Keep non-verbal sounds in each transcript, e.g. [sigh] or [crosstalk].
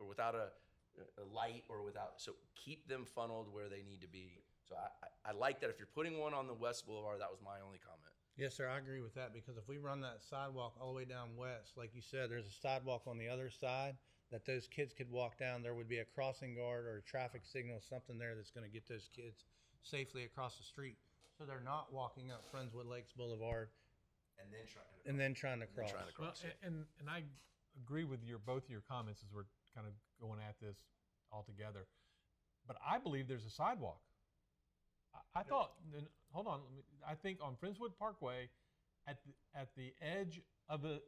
without a, a light or without. So keep them funneled where they need to be. So I, I, I like that. If you're putting one on the West Boulevard, that was my only comment. Yes, sir, I agree with that because if we run that sidewalk all the way down west, like you said, there's a sidewalk on the other side that those kids could walk down. There would be a crossing guard or a traffic signal, something there that's going to get those kids safely across the street. So they're not walking up Friendswood Lakes Boulevard And then trying to, and then trying to cross. trying to Well, cross. a- and, and I agree with your, both of your comments as we're kind of going at this all together. But I believe there's a sidewalk. I, I thought, then, hold on, let me, I think on Friendswood Parkway, at the, at the edge of the,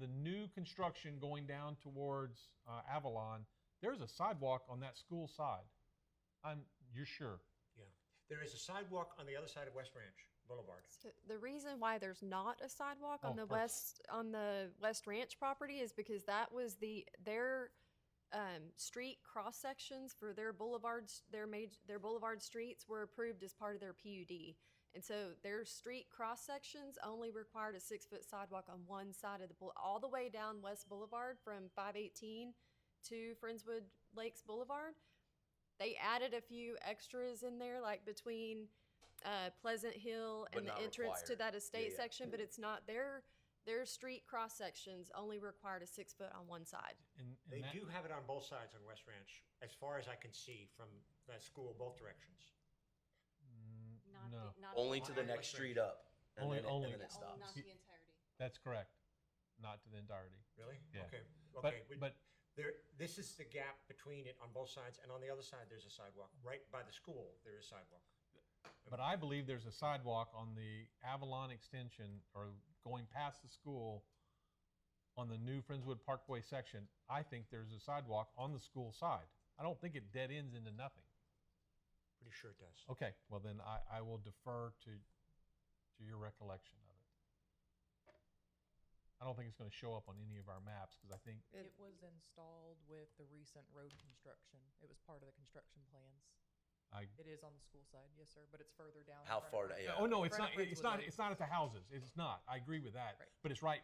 the new construction going down towards uh, Avalon, there's a sidewalk on that school side. I'm, you're sure? Yeah. There is a sidewalk on the other side of West Ranch Boulevard. So The reason why there's not a sidewalk Oh, on the perfect. west, on the West Ranch property is because that was the, their, um, street cross sections for their boulevards, their made, their boulevard streets were approved as part of their PUD. And so their street cross sections only required a six-foot sidewalk on one side of the, boule- all the way down West Boulevard from five eighteen to Friendswood Lakes Boulevard. They added a few extras in there, like between uh, Pleasant Hill But and the not entrance to required. that estate yeah. section, but it's not their their street cross sections only required a six foot on one side. And, and They that- do have it on both sides on West Ranch, as far as I can see from that school, both directions. Not mm, No. the, not Only the to the entire- next street up. And Only- then it, only- and then it Yeah, only stops. Not the entirety. That's correct. Not to the entirety. Really? Yeah. Okay, But- okay. We- but- There, this is the gap between it on both sides, and on the other side, there's a sidewalk. Right by the school, there is sidewalk. But I believe there's a sidewalk on the Avalon extension or going past the school on the new Friendswood Parkway section. I think there's a sidewalk on the school side. I don't think it dead ends into nothing. Pretty sure it does. Okay, well then I, I will defer to, to your recollection of it. I don't think it's gonna show up on any of our maps because I think, It was installed with the recent road construction. It was part of the construction plans. I, It is on the school side, yes, sir, but it's further down. in How front far of the- to- Yeah. oh no, it's not, Front of it's Friendswood not, Lake. it's not at the houses. It's not. I agree with that. Right. But it's right,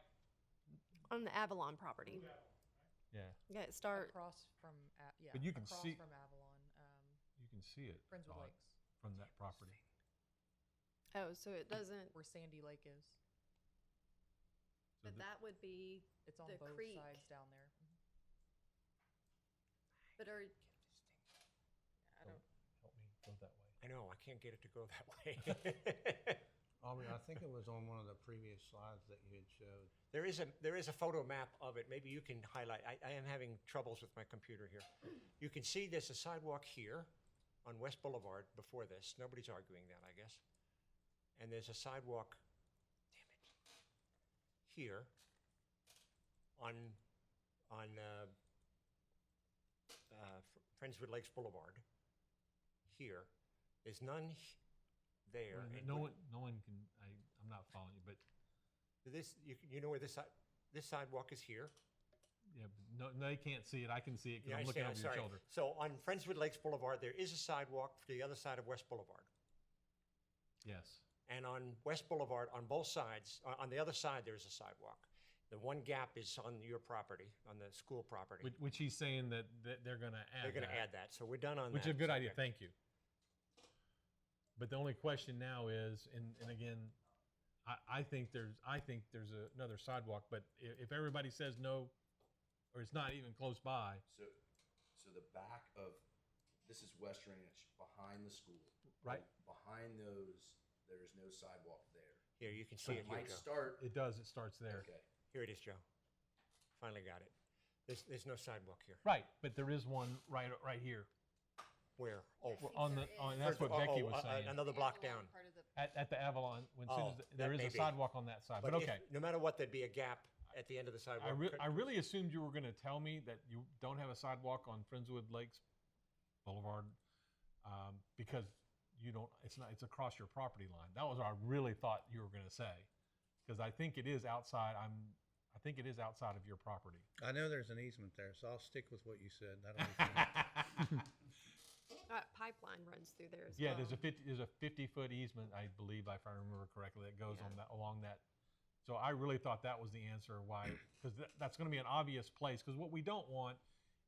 On the Avalon property. yeah, Yeah, it start Across from, A- yeah. But you can across see- From Avalon, um, you can see it. Friendswood Todd, Lakes, From that property. oh, so it doesn't where Sandy Lake is. So but the- that would be It's on The both creek. sides down there. but are I don't, Help me go that way. I know, I can't get it to go that [laughs] way. Aubrey, I think it was on one of the previous slides that you had showed. There is a there is a photo map of it. Maybe you can highlight. I, I am having troubles with my computer here. You can see there's a sidewalk here on West Boulevard before this. Nobody's arguing that, I guess. And there's a sidewalk, damn it, here on on uh, uh, Fr- Friendswood Lakes Boulevard. Here, there's none h- there. Well, and Mm-hmm. No we- one, no one can, I, I'm not following you, but, This you, you know where this si- this sidewalk is here. yeah, but no, no, they can't see it. I can see it because I'm Yeah, I looking over understand. your I'm shoulder. sorry. So on Friendswood Lakes Boulevard, there is a sidewalk to the other side of West Boulevard. Yes. And on West Boulevard, on both sides, on on the other side, there is a sidewalk. The one gap is on your property, on the school property. Which, which he's saying that, that they're gonna add They're going to add that, so we're done on that. Which is a good idea, thank you. But the only question now is, and, and again, I, I think there's, I think there's a- another sidewalk, but if, if everybody says no, or it's not even close by, So, so the back of this is West Ranch behind the school. Right. Behind those, there is no sidewalk there. Here, you can So see it it, here you might go. start. it does, it starts there. Okay. Here it is, Joe. Finally got it. There's, there's no sidewalk here. Right, but there is one right, right here, Where? Oh, Yes. on the, There on- is. and that's what Oh, Becky oh, was uh, saying. Another The block Avalon down. part of the- At, at the Avalon, when soon Oh, as that there is may a be. sidewalk on that side, but, if- okay. No matter what, there'd be a gap at the end of the sidewalk. I, re- Could- I really assumed you were going to tell me that you don't have a sidewalk on Friendswood Lakes Boulevard um, because you don't. It's not. It's across your property line. That was what I really thought you were going to say because I think it is outside. I'm. I think it is outside of your [laughs] property. I know there's an easement there, so I'll stick with what you said. That'll be [laughs] fine. that uh, pipeline runs through there as Yeah, well. there's a fifty. There's a fifty-foot easement, I believe, if I remember correctly, that goes on that along that. So I really thought that was the answer why, because that's going to be an obvious place. Because what we don't want